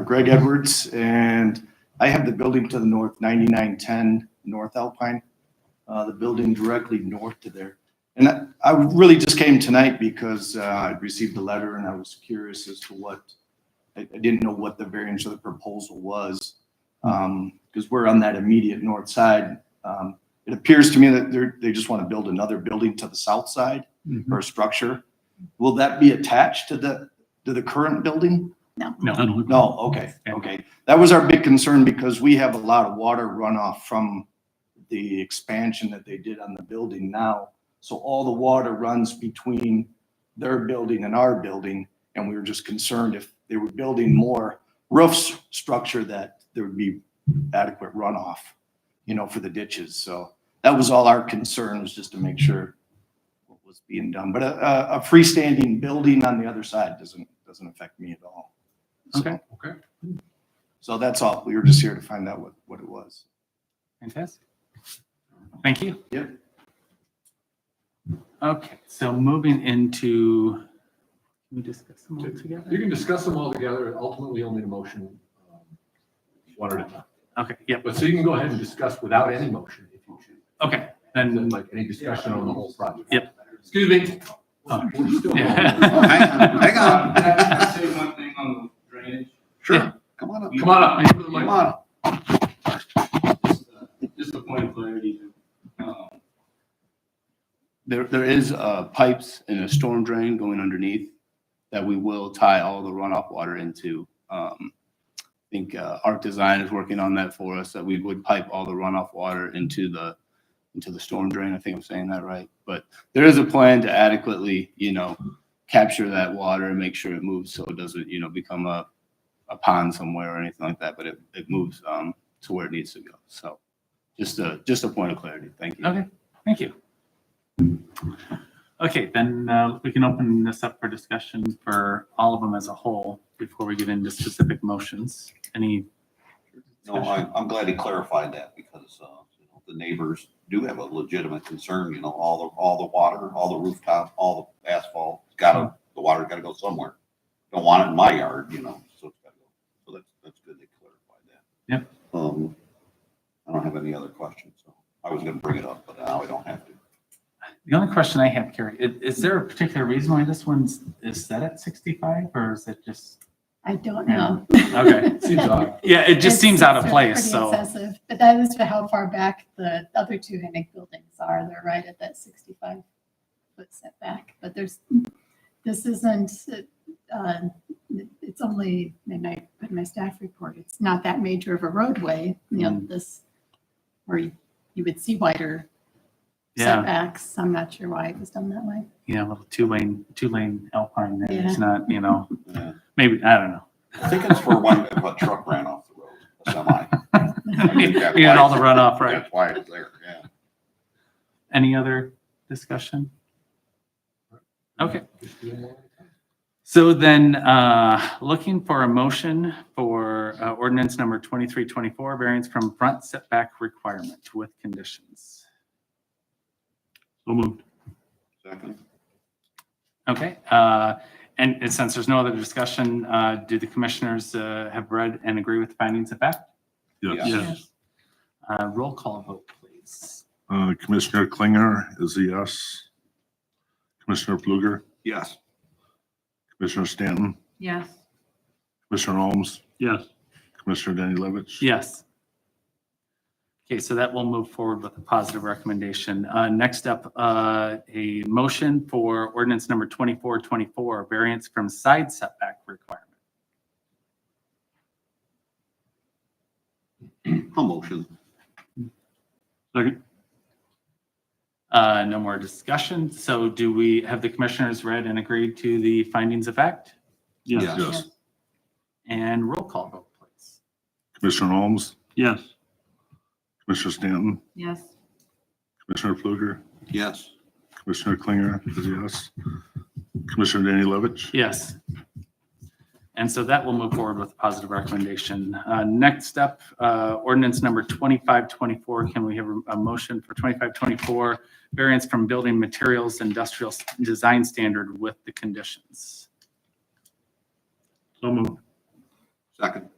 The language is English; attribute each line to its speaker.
Speaker 1: Greg Edwards, and I have the building to the north, 9910 North Alpine, uh, the building directly north to there. And I- I really just came tonight because uh, I received a letter and I was curious as to what, I I didn't know what the variance of the proposal was. Because we're on that immediate north side. Um, It appears to me that they're, they just want to build another building to the south side or structure. Will that be attached to the, to the current building?
Speaker 2: No.
Speaker 1: No, okay, okay. That was our big concern because we have a lot of water runoff from the expansion that they did on the building now. So all the water runs between their building and our building, and we were just concerned if they were building more roofs structure that there would be adequate runoff, you know, for the ditches. So that was all our concern was just to make sure what was being done. But a, a- a freestanding building on the other side doesn't, doesn't affect me at all. So-
Speaker 2: Okay. Okay.
Speaker 1: so that's all. We were just here to find out what, what it was.
Speaker 2: Fantastic. Thank you.
Speaker 1: Yep.
Speaker 2: Okay, so moving into, can we discuss them all together?
Speaker 3: You can discuss them all together, ultimately you'll need a motion. um, One at a time.
Speaker 2: Okay, yep,
Speaker 3: But so you can go ahead and discuss without any motion if you choose.
Speaker 2: okay,
Speaker 3: And then
Speaker 2: then,
Speaker 3: like any discussion on the whole project.
Speaker 2: Yep.
Speaker 3: Excuse me.
Speaker 2: Oh.
Speaker 3: We're still-
Speaker 2: Yeah.
Speaker 4: Hang on.
Speaker 5: Can I can I say one thing on the drainage?
Speaker 4: Sure, come on up.
Speaker 3: Come on up. Come
Speaker 4: Come on up.
Speaker 5: Just, uh, Just a point of clarity. Um,
Speaker 4: There, there is, uh, pipes and a storm drain going underneath that we will tie all the runoff water into. Um, I think, uh, Arc Design is working on that for us, that we would pipe all the runoff water into the, into the storm drain. I think I'm saying that right. But there is a plan to adequately, you know, capture that water and make sure it moves so it doesn't, you know, become a, a pond somewhere or anything like that, but it, it moves, um, to where it needs to go. So just a, just a point of clarity. Thank you.
Speaker 2: okay, thank you. Okay, then uh, we can open this up for discussion for all of them as a whole before we get into specific motions. Any,
Speaker 6: No, I, I'm glad he clarified that because, uh, you know, the neighbors do have a legitimate concern, you know, all the, all the water, all the rooftop, all the asphalt, it's gotta, the water's gotta go somewhere. Don't want it in my yard, you know, so it's gotta go. So that's, that's good they clarified that.
Speaker 2: Yep.
Speaker 6: Um, I don't have any other questions, so I was gonna bring it up, but now I don't have to.
Speaker 2: the only question I have, Carrie, i- is there a particular reason why this one's, is set at 65 or is it just?
Speaker 7: I don't know.
Speaker 2: Okay.
Speaker 3: Seems odd.
Speaker 2: Yeah, it just
Speaker 7: It's-
Speaker 2: seems out of
Speaker 7: it's
Speaker 2: place,
Speaker 7: pretty
Speaker 2: so.
Speaker 7: excessive, But that is to how far back the other two Hennick buildings are. They're right at that sixty-five foot setback, but there's, this isn't, uh, it's only, and I put in my staff report, it's not that major of a roadway, you know,
Speaker 2: Mm.
Speaker 7: this, where you you would see wider
Speaker 2: Yeah.
Speaker 7: setbacks. I'm not sure why it was done that way.
Speaker 2: you know, little two lane, two lane Alpine there. It's
Speaker 7: Yeah.
Speaker 2: not, you know,
Speaker 6: Yeah.
Speaker 2: maybe, I don't know.
Speaker 6: I think it's for when a truck ran off the road, a semi. I think that's
Speaker 2: We had all the
Speaker 6: why-
Speaker 2: runoff, right?
Speaker 6: That's why it's there, yeah.
Speaker 2: Any other discussion? Okay.
Speaker 3: Just do them all at a time.
Speaker 2: So then, uh, looking for a motion for uh, ordinance number 2324, variance from front setback requirement with conditions.
Speaker 4: So moved.
Speaker 6: Second.
Speaker 2: Okay, uh, and and since there's no other discussion, uh, do the commissioners uh, have read and agree with the findings of fact?
Speaker 6: Yes.
Speaker 2: Yes. Uh, Roll call vote, please.
Speaker 8: Uh, Commissioner Klinger is a yes. Commissioner Fluger,
Speaker 6: Yes.
Speaker 8: Commissioner Stanton,
Speaker 7: Yes.
Speaker 8: Commissioner Holmes,
Speaker 4: Yes.
Speaker 8: Commissioner Danny Levitch.
Speaker 2: Yes. Okay, so that will move forward with a positive recommendation. Uh, Next up, uh, a motion for ordinance number 2424, variance from side setback requirement.
Speaker 6: I'll motion.
Speaker 2: Uh, No more discussion. So do we, have the commissioners read and agreed to the findings of fact?
Speaker 6: Yes.
Speaker 8: Yes.
Speaker 2: And roll call vote, please.
Speaker 8: Commissioner Holmes,
Speaker 4: Yes.
Speaker 8: Commissioner Stanton,
Speaker 7: Yes.
Speaker 8: Commissioner Fluger,
Speaker 6: Yes.
Speaker 8: Commissioner Klinger is a yes. Commissioner Danny Levitch.
Speaker 2: Yes. And so that will move forward with a positive recommendation. Uh, Next up, uh, ordinance number 2524. Can we have a- a motion for 2524, variance from building materials industrial s- design standard with the conditions?
Speaker 8: So moved.
Speaker 6: Second.